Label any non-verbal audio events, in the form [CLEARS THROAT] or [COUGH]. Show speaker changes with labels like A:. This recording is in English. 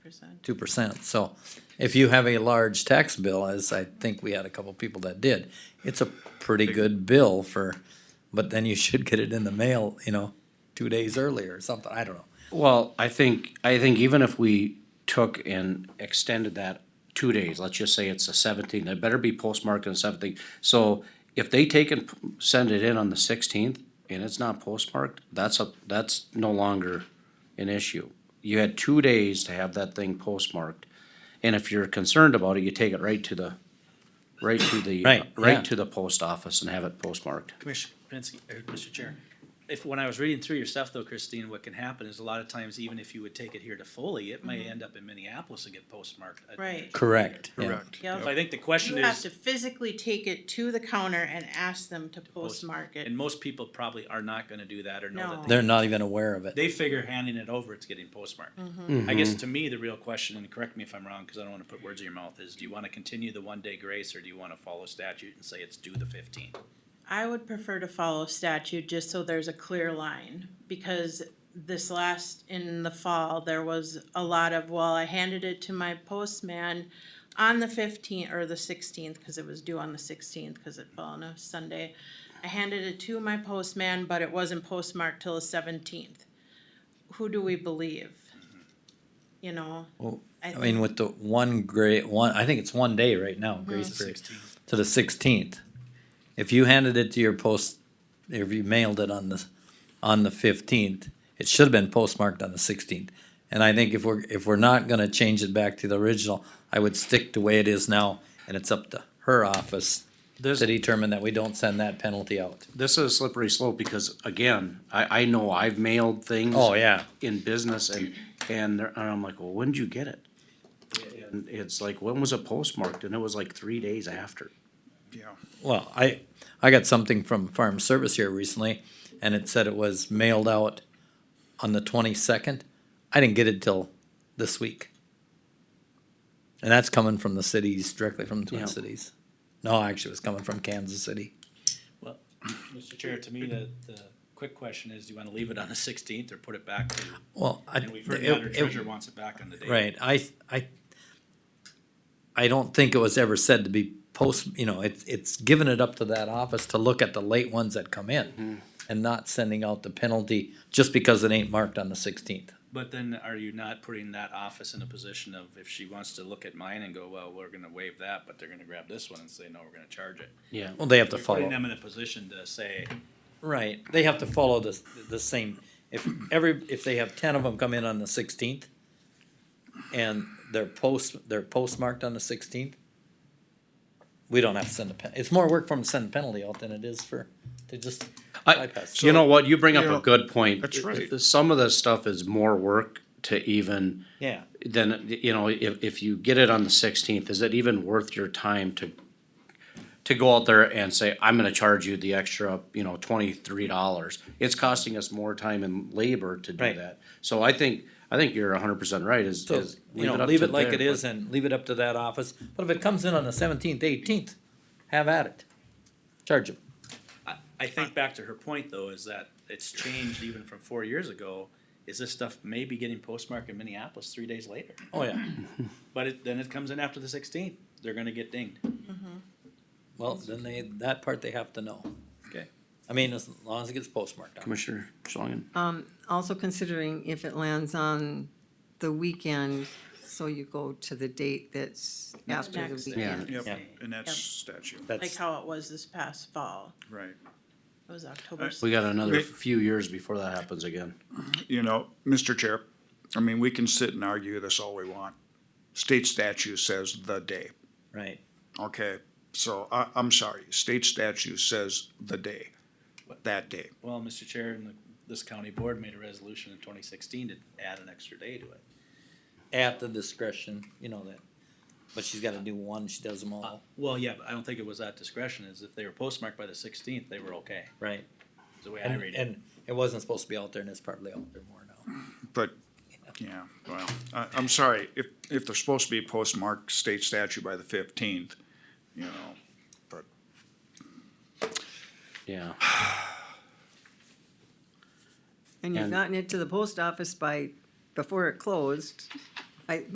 A: percent.
B: two percent. So if you have a large tax bill, as I think we had a couple people that did, it's a pretty good bill for, but then you should get it in the mail, you know, two days earlier or something, I don't know.
C: Well, I think, I think even if we took and extended that two days, let's just say it's the seventeenth, it better be postmarked on something. So if they take and p- send it in on the sixteenth and it's not postmarked, that's a, that's no longer an issue. You had two days to have that thing postmarked. And if you're concerned about it, you take it right to the, right to the,
B: Right, yeah.
C: right to the post office and have it postmarked.
D: Commissioner Kapinski, or Mr. Chair, if, when I was reading through your stuff though, Christine, what can happen is a lot of times, even if you would take it here to Foley, it may end up in Minneapolis and get postmarked. I-
A: Mm-hmm. Right.
B: Correct. yeah.
D: So
A: Yep.
D: I think the question
A: You have
D: is,
A: to physically take it to the counter and ask them to postmark it.
D: and most people probably are not gonna do that or know
A: No.
D: that. they-
B: They're not even aware of it.
D: They figure handing it over, it's getting postmarked.
A: Mm-hmm.
D: I guess to me, the real question, and correct me if I'm wrong, cause I don't wanna put words in your mouth, is do you wanna continue the one day grace or do you wanna follow statute and say it's due the fifteenth?
A: I would prefer to follow statute just so there's a clear line, because this last, in the fall, there was a lot of, well, I handed it to my postman on the fifteenth or the sixteenth, cause it was due on the sixteenth, cause it fell on a Sunday. I handed it to my postman, but it wasn't postmarked till the seventeenth. Who do we believe? You know?
B: Well,
A: I
B: I mean,
A: think-
B: with the one great one, I think it's one day right now, grace period, to the sixteenth. If you handed it to your post, if you mailed it on the, on the fifteenth, it should have been postmarked on the sixteenth. And I think if we're, if we're not gonna change it back to the original, I would stick the way it is now, and it's up to her office to
C: There's-
B: determine that we don't send that penalty out.
C: this is a slippery slope because again, I, I know I've mailed things.
B: Oh, yeah.
C: In business and, and they're- and I'm like, well, when did you get it? And it's like, when was it postmarked? And it was like three days after.
B: Well, I, I got something from Farm Service here recently, and it said it was mailed out on the twenty-second. I didn't get it till this week. And that's coming from the cities, directly from the
C: Yeah.
B: Twin Cities. No, actually, it was coming from Kansas City.
D: Well, [CLEARS THROAT] Mr. Chair, to me, the, the quick question is, do you wanna leave it on the sixteenth or put it back to
B: Well, I.
D: And we've heard
B: it-
D: the auditor
B: it-
D: treasurer wants it back on the date.
B: Right, I, I, I don't think it was ever said to be post, you know, it's, it's given it up to that office to look at the late ones that come in
C: Mm-hmm.
B: and not sending out the penalty just because it ain't marked on the sixteenth.
D: But then are you not putting that office in a position of if she wants to look at mine and go, well, we're gonna waive that, but they're gonna grab this one and say, no, we're gonna charge it.
C: Yeah.
B: Well, they have to
D: You're putting
B: follow,
D: them in a position to say,
B: right, they have to follow the, the same, if every, if they have ten of them come in on the sixteenth and they're post, they're postmarked on the sixteenth, we don't have to send a pen, it's more work for them to send a penalty out than it is for, to just
C: I,
B: bypass.
C: you know what? You bring
E: You
C: up
E: know,
C: a good point.
E: that's right.
C: Some of the stuff is more work to even,
B: Yeah.
C: then, you know, if, if you get it on the sixteenth, is it even worth your time to, to go out there and say, I'm gonna charge you the extra, you know, twenty-three dollars? It's costing us more time and labor to do
B: Right.
C: that. So I think, I think you're hundred percent right, is,
B: So,
C: is.
B: you know,
C: up
B: leave
C: to
B: it like it
C: there,
B: is and leave it up to that office. But if it comes in on the seventeenth, eighteenth, have at it. Charge them.
D: I, I think back to her point though, is that it's changed even from four years ago. Is this stuff maybe getting postmarked in Minneapolis three days later?
B: Oh, yeah.
D: But it, then it comes in after the sixteenth, they're gonna get dinged.
B: Well, then they, that part they have to know.
D: Okay.
B: I mean, as long as it gets postmarked
C: but-
B: on.
C: Commissioner Schlangen,
F: Also considering if it lands on the weekend, so you go to the date that's after the
A: Next day.
F: weekend.
E: Yep,
B: Yeah.
E: and that's
A: Yep.
E: statute,
A: Like
B: That's,
A: how it was this past fall,
E: right.
A: it was October.
E: Alright,
C: we got another
E: Right.
C: few years before that happens again.
E: You know, Mr. Chair, I mean, we can sit and argue this all we want. State statute says the day,
B: right.
E: okay? So I, I'm sorry, state statute says the day, that day.
D: Well, Mr. Chair, and the- this county board made a resolution in twenty sixteen to add an extra day to it.
B: At the discretion, you know that. But she's gotta do one, she does them all,
D: Well, yeah, but I don't think it was at discretion, is if they were postmarked by the sixteenth, they were okay,
B: right?
D: is the way I
B: And,
D: read it.
B: and it wasn't supposed to be out there and it's probably out there more now.
E: But, yeah, well, I, I'm sorry, if, if they're supposed to be postmarked state statute by the fifteenth, you know, but
C: Yeah.
F: And you've
C: And-
F: gotten it to the post office by, before it closed. I,